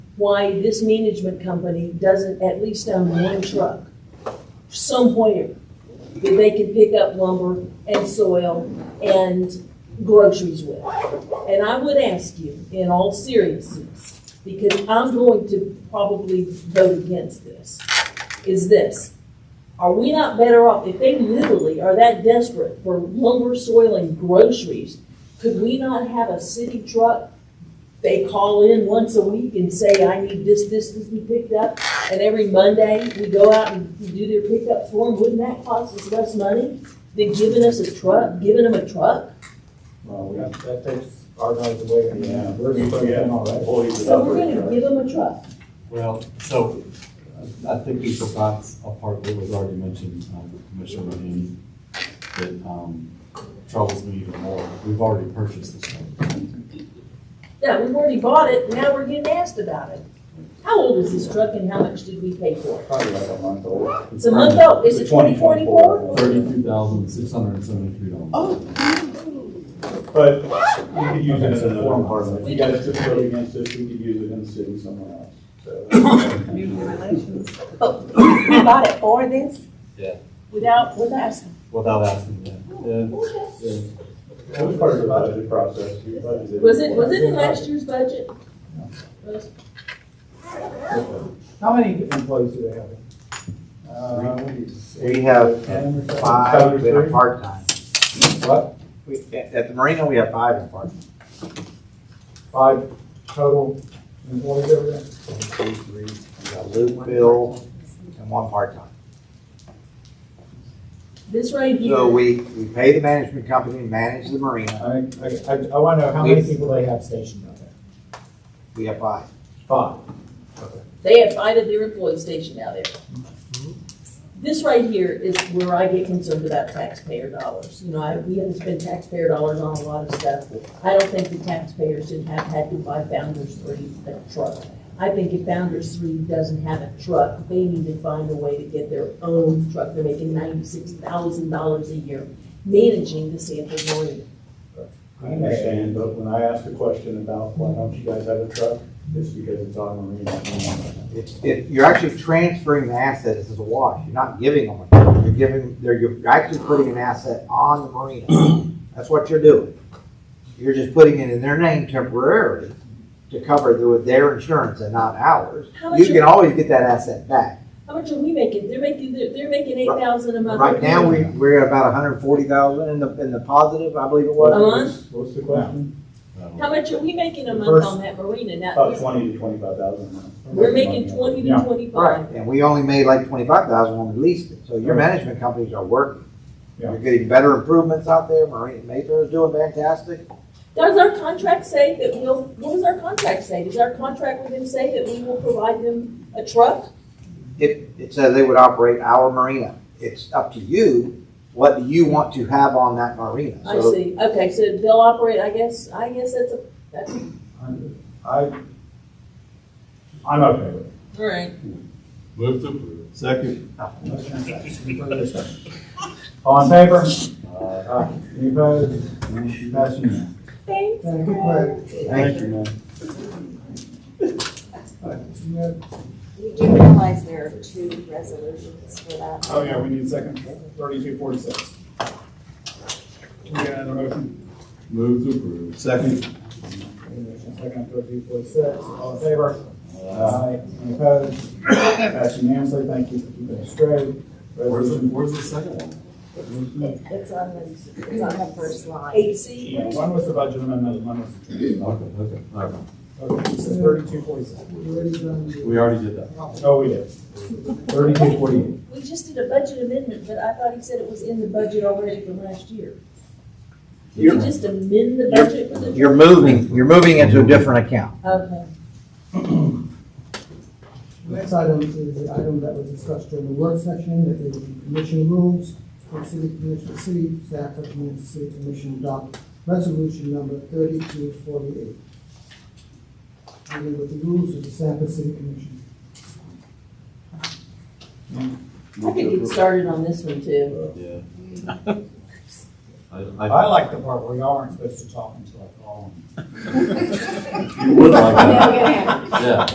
why this management company doesn't at least own one truck somewhere that they can pick up lumber and soil and groceries with. And I would ask you, in all seriousness, because I'm going to probably vote against this, is this. Are we not better off, if they literally are that desperate for lumber, soil, and groceries, could we not have a city truck? They call in once a week and say, I need this, this, this, we picked up, and every Monday, we go out and do their pickup for them, wouldn't that cost us less money than giving us a truck, giving them a truck? Well, that, that takes our guys away. Yeah. We're just putting them all right. Employees So and we're operators. gonna give them a truck. Well, so uh, I think we forgot a part that was already mentioned, um, with Commissioner Rohini, that um, troubles me even more. We've already purchased this one. Yeah, we've already bought it, now we're getting asked about it. How old is this truck and how much did we pay for it? Probably like a month old. It's a month old, is it twenty twenty-four? Thirty-two thousand, six hundred and seventy-three dollars. Oh. But you could use it It's in a another form part part. of If it. you guys just vote against this, we could use it in the city somewhere else. So, Community relations. But we bought it for this? Without, without asking. Without asking that. Yeah, yeah. That was part of the budget process. You budgeted Was it, was it in last year's budget? Was- How many employees do they have? Uh, We have five that are part-time. What? We- At at the Marina, we have five in part-time. Five total employees over there? One, two, three. We got Luke, Bill, and one part-time. This right So here, we, we pay the management company, to manage the Marina. I, I, I want to know how many people they have stationed out there. We have five. Five. they had five at their employee station out there. This right here is where I get concerned about taxpayer dollars. You know, I, we haven't spent taxpayer dollars on a lot of stuff. I don't think the taxpayers should have had to buy Founders Three a truck. I think if Founders Three doesn't have a truck, they need to find a way to get their own truck. They're making ninety-six thousand dollars a year managing the Sanford Marina. I understand, but when I asked the question about why don't you guys have a truck, it's because it's on marina. If, if you're actually transferring the asset, this is a wash. You're not giving them a truck. You're giving, they're, you're actually putting an asset on the Marina. That's what you're doing. You're just putting it in their name temporarily to cover the- their insurance and not ours. How much You are- can always get that asset back. How much are we making? They're making, they're, they're making eight thousand a month. Right now, we, we're at about hundred and forty thousand in the, in the positive, I believe it A was. month? What's the question? How much are we making a month First- on that marina Oh, About now? twenty to twenty-five thousand a month. We're making twenty to Yeah. twenty-five. Right, and we only made like twenty-five thousand when we leased it, so your Right. management companies are working. Yeah. You're getting better improvements out there, Marina Mayfair is doing fantastic. Does our contract say that we'll, what does our contract say? Does our contract with them say that we will provide them a truck? It, it says they would operate our marina, it's up to you, what do you want to have on that marina? I So see, okay, so they'll operate, I guess, I guess that's a, that's, I, I'm okay with it. all right. Move to approve. Second. All in favor? Uh, Aye. Any opposed? Motion unanimous. Thanks. Thank you, Craig. Thank you. We do realize there are two resolutions for that. Oh, yeah, we need a second, thirty-two forty-six. Can we get another motion? Move to approve. Second. Second, third, two, four, six. All in favor? Uh, Aye. Any opposed? Pass unanimously. Thank you for keeping us straight. Where's the, Resolution. where's the second one? It's on the, it's on the first line. Eight C, Yeah, One was the budget amendment, and one was the transfer. Okay, okay, all right. Okay, Thirty-two forty-six. We already did that. Oh, we did. Thirty-two forty-eight. we just did a budget amendment, but I thought he said it was in the budget already from last year. Did we You're- just amend the you're- budget for the? You're moving, you're moving into a different account. Okay, Next item is the item that was discussed during the work session, that is the commission rules for city commission, city staff recommends the city commission adopt resolution number thirty-two forty-eight. Dealing with the rules of the Sanford City Commission. I could get started on this one too. Yeah. I I, like the part where y'all aren't supposed to talk until I call. I would like that, Million. Oh, yeah.